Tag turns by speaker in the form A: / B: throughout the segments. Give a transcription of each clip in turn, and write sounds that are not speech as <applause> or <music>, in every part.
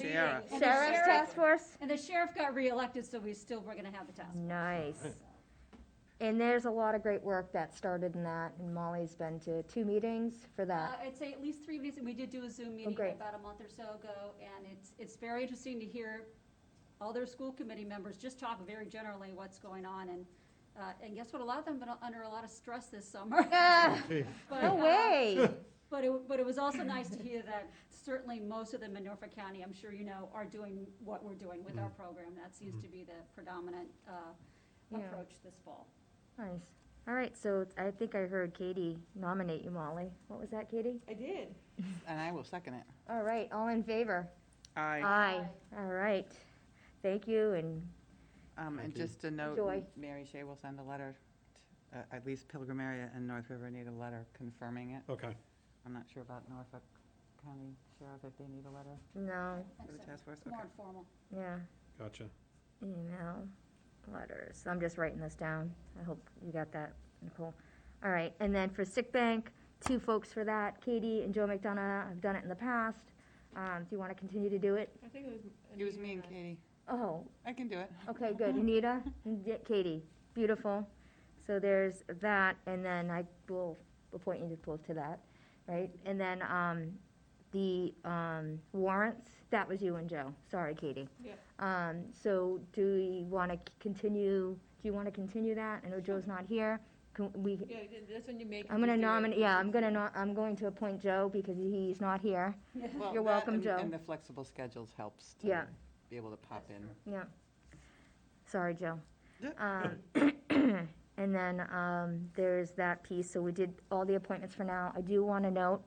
A: Sarah.
B: And the
C: Sarah's
B: sheriff-
C: task force?
B: And the sheriff got reelected, so we still, we're gonna have the task.
C: Nice. And there's a lot of great work that started in that, and Molly's been to two meetings for
B: Uh,
C: that. Oh,
B: I'd say at least three meetings, and we did do a Zoom meeting
C: great.
B: about a month or so ago, and it's, it's very interesting to hear all their school committee members just talk very generally what's going on, and, uh, and guess what, a lot of them have been under a lot of stress this
C: <laughs>
B: summer.
C: Ah,
B: But,
C: No
B: uh,
C: way.
B: <laughs> But it, but it was also nice to hear that certainly most of them in Norfolk County, I'm sure you know, are doing what we're doing with our program. That seems to be the predominant uh,
C: Yeah.
B: approach this fall.
C: Nice. All right, so I think I heard Katie nominate you, Molly. What was that, Katie?
D: I did.
E: And I will second it.
C: All right, all in favor?
A: I,
C: Aye. All right. Thank you, and
E: Um, and
F: Thank you.
E: just a note,
C: Joy.
E: Mary Shea will send a letter, t- uh, at least Pilgrim area and North River need a letter confirming it.
F: Okay,
E: I'm not sure about Norfolk County Sheriff if they need a letter
C: no,
B: That's
E: for the
B: it.
E: task force,
B: It's
E: okay.
B: more informal.
C: yeah,
F: gotcha.
C: email, letters. I'm just writing this down. I hope you got that, Nicole. All right, and then for sick bank, two folks for that, Katie and Joe McDonough. I've done it in the past. Um, do you want to continue to do it?
D: I think it was.
E: It was me and Katie.
C: Oh,
E: I can
C: <laughs>
E: do it.
C: Okay, good. Anita, and Di- Katie, beautiful. So there's that, and then I will appoint you to both to that, right? And then, um, the, um, warrants, that was you and Joe. Sorry, Katie.
D: Yep.
C: Um, so do we want to continue, do you want to continue that? I know Joe's not here. Can we,
D: Yeah, that's when you make.
C: I'm gonna nominate, yeah, I'm gonna, no- I'm going to appoint Joe because he's not here.
E: Well, that
C: You're welcome,
E: and-
C: Joe.
E: And the flexible schedules helps to
C: Yeah.
E: be able to pop in.
C: Yeah. Sorry, Joe. Um, And then um, there's that piece, so we did all the appointments for now. I do want to note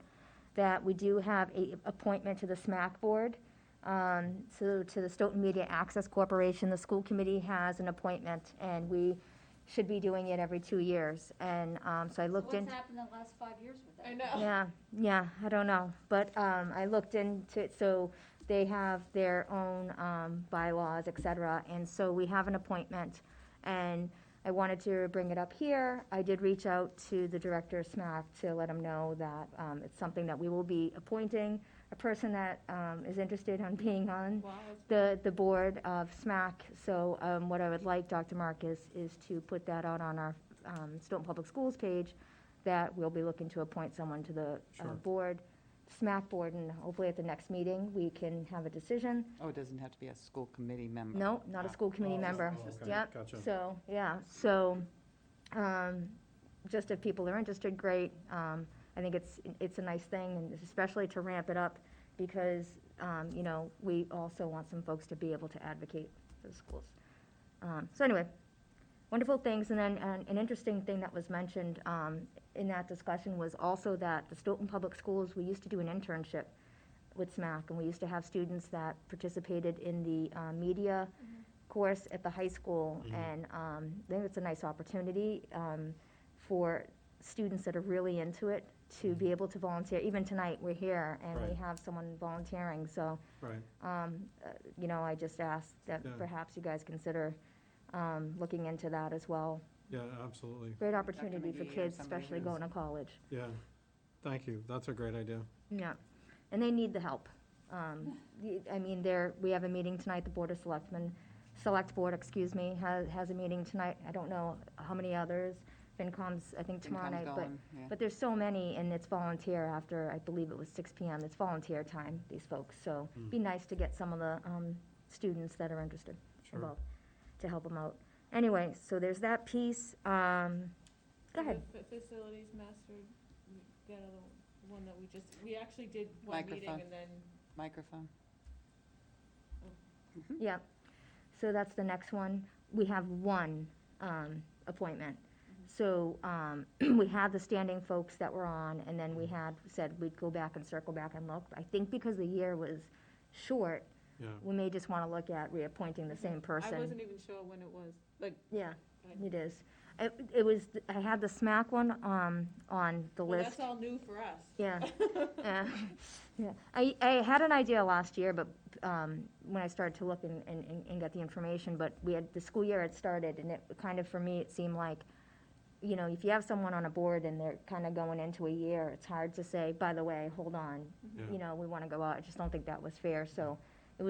C: that we do have a appointment to the SMAC Board. Um, So to the Stoughton Media Access Corporation, the school committee has an appointment, and we should be doing it every two years. And um, so I
B: So
C: looked in.
B: What's happened in the last five years with that?
D: I know.
C: Yeah, yeah, I don't know, but, um, I looked into it, so they have their own, um, bylaws, et cetera, and so we have an appointment. And I wanted to bring it up here, I did reach out to the director of SMAC to let him know that, um, it's something that we will be appointing a person that, um, is interested on being on
D: Wow,
C: the, the board of SMAC, so um, what I would like, Dr. Mark, is, is to put that out on our um, Stoughton Public Schools page, that we'll be looking to appoint someone to the uh,
F: Sure.
C: board, SMAC board, and hopefully at the next meeting, we can have a decision.
E: Oh, it doesn't have to be a school committee member.
C: No, not a
E: Ah.
C: school committee
F: Oh,
C: member.
F: oh, okay,
C: Yep,
F: gotcha.
C: so, yeah, so, um, just if people are interested, great. Um, I think it's, it's a nice thing, and especially to ramp it up, because, um, you know, we also want some folks to be able to advocate for the schools. Um, so anyway, wonderful things, and then, an, an interesting thing that was mentioned, um, in that discussion was also that the Stoughton Public Schools, we used to do an internship with SMAC, and we used to have students that participated in the, uh, media course at the high school, and, um, I think it's a nice opportunity, um, for students that are really into it to be able to volunteer, even tonight, we're here, and we
F: Right.
C: have someone volunteering, so,
F: Right,
C: um, uh, you know, I just asked that
F: Yeah.
C: perhaps you guys consider, um, looking into that as well.
F: yeah, absolutely,
C: Great opportunity
E: McGee
C: for
E: or
C: kids,
E: somebody
C: especially
E: who's-
C: going to college.
F: yeah. Thank you, that's a great idea.
C: Yeah, and they need the help. Um, the- I mean, there, we have a meeting tonight, the Board of Selectmen, Select Board, excuse me, has, has a meeting tonight. I don't know how many others, FinCom's, I think tomorrow night,
E: Income's
C: but,
E: going, yeah.
C: but there's so many, and it's volunteer after, I believe it was six PM. It's volunteer time, these folks, so it'd be nice to get some of the um, students that are interested
F: Sure.
C: involved, to help them out. Anyway, so there's that piece. Um, Go ahead.
D: Facilities master, we got another one that we just, we actually did one meeting
E: Microphone.
D: and then.
E: Microphone.
C: Yeah, so that's the next one. We have one um, appointment. So um, <clears throat> we had the standing folks that were on, and then we had said we'd go back and circle back and look. I think because the year was short,
F: Yeah,
C: we may just want to look at reappointing the same
D: Mm-hmm. I wasn't
C: person.
D: even sure when it was, like,
C: Yeah,
D: I-
C: it is. It it was, I had the smack one um, on the
D: well,
C: list.
D: that's all new for us. <laughs>
C: Yeah. Yeah. Yeah. I, I had an idea last year, but, um, when I started to look and, and, and- and got the information, but we had, the school year had started, and it kind of, for me, it seemed like, you know, if you have someone on a board and they're kind of going into a year, it's hard to say, by the way, hold on,
F: Yeah.
C: you know, we want to go out. I just don't think that was fair, so